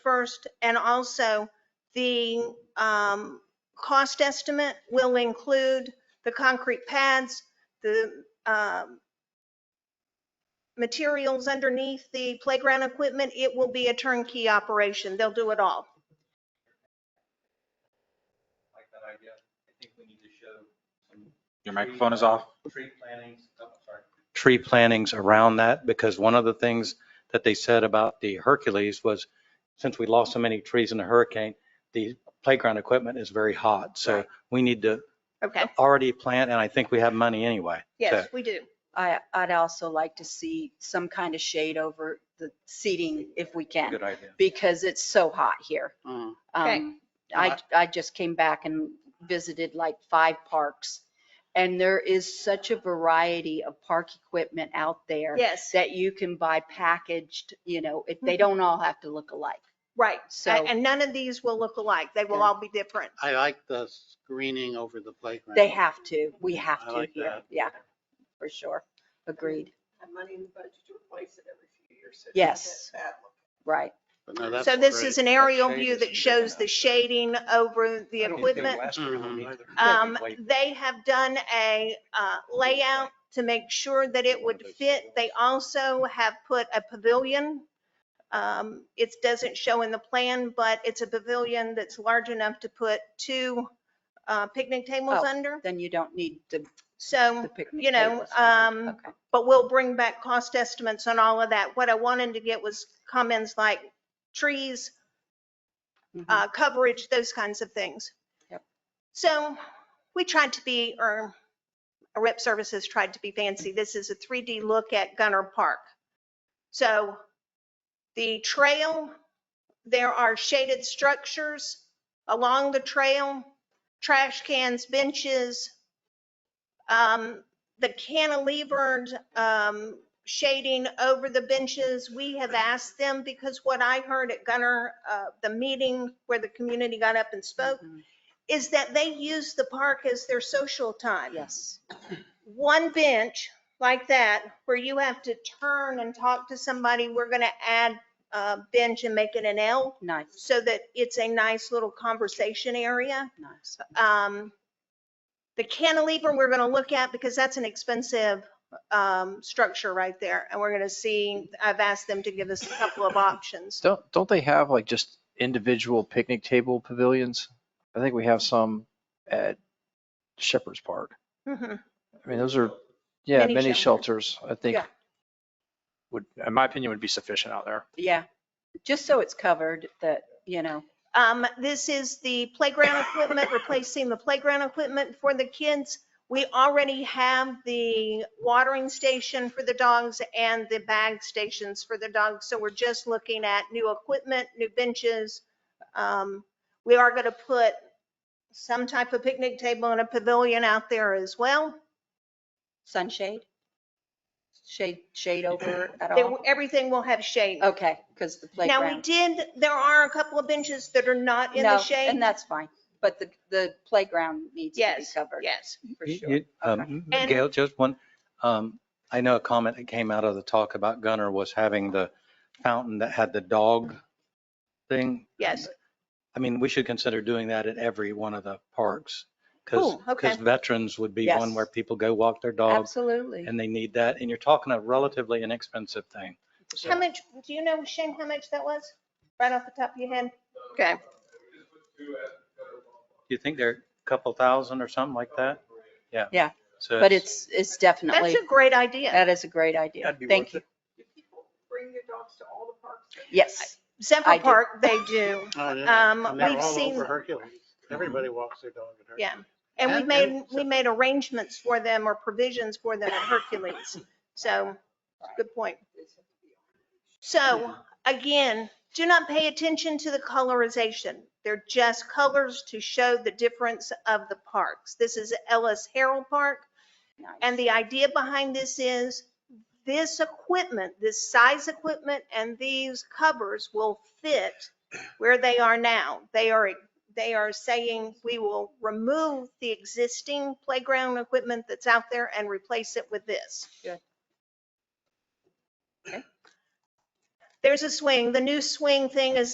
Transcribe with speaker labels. Speaker 1: first. And also the um, cost estimate will include the concrete pads, the um, materials underneath the playground equipment. It will be a turnkey operation. They'll do it all.
Speaker 2: like that idea. I think we need to show some.
Speaker 3: Your
Speaker 2: tree-
Speaker 3: microphone is off.
Speaker 2: Tree plantings, oh, sorry.
Speaker 4: tree plantings around that because one of the things that they said about the Hercules was since we lost so many trees in the hurricane, the playground equipment is very hot. So
Speaker 1: Right.
Speaker 4: we need to
Speaker 1: Okay,
Speaker 4: already plant and I think we have money anyway.
Speaker 1: yes, we do.
Speaker 5: I, I'd also like to see some kind of shade over the seating if we can,
Speaker 4: Good idea.
Speaker 5: because it's so hot here.
Speaker 6: Mm.
Speaker 1: Okay.
Speaker 5: Um, I, I just came back and visited like five parks. And there is such a variety of park equipment out there
Speaker 1: Yes,
Speaker 5: that you can buy packaged, you know, if they
Speaker 1: Mhm.
Speaker 5: don't all have to look alike.
Speaker 1: right. A-
Speaker 5: So
Speaker 1: And none of these will look alike. They will all be different.
Speaker 6: I like the screening over the playground.
Speaker 5: they have to, we have
Speaker 6: I
Speaker 5: to
Speaker 6: like
Speaker 5: here.
Speaker 6: that.
Speaker 5: Yeah, for sure. Agreed.
Speaker 7: have money in the budget to replace it every few years. so it's not
Speaker 5: Yes.
Speaker 7: that bad looking.
Speaker 5: Right.
Speaker 6: But no, that's
Speaker 1: So this is
Speaker 6: great.
Speaker 1: an aerial
Speaker 4: shade
Speaker 1: view
Speaker 4: is
Speaker 1: that
Speaker 4: good
Speaker 1: shows
Speaker 4: enough.
Speaker 1: the shading over the
Speaker 3: I don't think
Speaker 1: equipment.
Speaker 3: last year we
Speaker 6: Mhm.
Speaker 3: did.
Speaker 1: Um,
Speaker 3: Wait.
Speaker 1: they have done a, uh, layout to make sure that it would fit. They also have put a pavilion. Um, it doesn't show in the plan, but it's a pavilion that's large enough to put two, uh, picnic tables
Speaker 5: Oh.
Speaker 1: under.
Speaker 5: Then you don't need the, the
Speaker 1: So,
Speaker 5: picnic
Speaker 1: you know,
Speaker 5: tables.
Speaker 1: um,
Speaker 5: Okay.
Speaker 1: but we'll bring back cost estimates on all of that. What I wanted to get was comments like trees,
Speaker 5: Mhm.
Speaker 1: uh, coverage, those kinds of things.
Speaker 5: Yep.
Speaker 1: So we tried to be, or Rep Services tried to be fancy. This is a 3D look at Gunner Park. So the trail, there are shaded structures along the trail, trash cans, benches. Um, The cantilevered um, shading over the benches. We have asked them because what I heard at Gunner, uh, the meeting where the community got up and spoke,
Speaker 5: Mhm.
Speaker 1: is that they use the park as their social time.
Speaker 5: Yes.
Speaker 1: One bench like that where you have to turn and talk to somebody, we're going to add a bench and make it an L
Speaker 5: Nice,
Speaker 1: so that it's a nice little conversation area.
Speaker 5: nice.
Speaker 1: Um, The cantilever, we're going to look at because that's an expensive um, structure right there. And we're going to see, I've asked them to give us a couple of options.
Speaker 8: Don't don't they have like just individual picnic table pavilions? I think we have some at Shepherd's Park.
Speaker 1: Mhm.
Speaker 8: I mean, those are yeah,
Speaker 1: Mini
Speaker 8: many,
Speaker 1: shelters.
Speaker 8: shelters. I think
Speaker 5: Yeah.
Speaker 8: would, in my opinion, would be sufficient out there.
Speaker 5: Yeah, just so it's covered that, you know,
Speaker 1: Um, This is the playground equipment, replacing the playground equipment for the kids. We already have the watering station for the dogs and the bag stations for the dogs. So we're just looking at new equipment, new benches. Um, We are going to put some type of picnic table and a pavilion out there as well.
Speaker 5: sunshade? Shade, shade over at
Speaker 1: They-
Speaker 5: all?
Speaker 1: Everything will have shade.
Speaker 5: Okay, because the
Speaker 1: Now, we
Speaker 5: Oh. playground.
Speaker 1: did, there are a couple of benches that are not in
Speaker 5: No,
Speaker 1: the shade.
Speaker 5: And that's fine, but the, the playground needs to be
Speaker 1: Yes,
Speaker 5: covered
Speaker 1: yes.
Speaker 5: for
Speaker 4: You-
Speaker 5: sure.
Speaker 4: you- um, Gail, just one, um, I know a comment that came out of the talk about Gunner was having the fountain that had the dog thing.
Speaker 1: Yes.
Speaker 4: I mean, we should consider doing that at every one of the parks. Cause,
Speaker 1: Cool, okay.
Speaker 4: cause veterans would be one
Speaker 5: Yes.
Speaker 4: where people go walk their dogs
Speaker 5: Absolutely.
Speaker 4: and they need that. And you're talking a relatively inexpensive thing. So-
Speaker 1: How much, do you know, Shane, how much that was? Right off the top of your head? Okay.
Speaker 4: Do you think they're a couple thousand or something like that? Yeah.
Speaker 5: Yeah,
Speaker 4: So
Speaker 5: But it's,
Speaker 1: That's
Speaker 5: it's definitely,
Speaker 1: a great idea.
Speaker 5: that is a great idea.
Speaker 3: That'd be
Speaker 5: Thank
Speaker 3: worth
Speaker 5: you.
Speaker 3: it.
Speaker 7: Do people bring their dogs to all the parks?
Speaker 5: Yes, I
Speaker 1: Zephyr
Speaker 5: do.
Speaker 1: Park, they do.
Speaker 6: Oh, yeah.
Speaker 1: um,
Speaker 6: And they're
Speaker 1: we've
Speaker 6: all
Speaker 1: seen-
Speaker 6: over Hercules. Everybody walks their dog at Hercules.
Speaker 1: Yeah. And we
Speaker 6: And-
Speaker 1: made,
Speaker 6: and-
Speaker 1: we made arrangements for them or provisions for them at Hercules. So, good point. So again, do not pay attention to the colorization. They're just colors to show the difference of the parks. This is Ellis Harrell Park.
Speaker 5: Nice.
Speaker 1: And the idea behind this is this equipment, this size equipment and these covers will fit where they are now. They are, they are saying we will remove the existing playground equipment that's out there and replace it with this.
Speaker 5: Good. Okay.
Speaker 1: There's a swing. The new swing thing is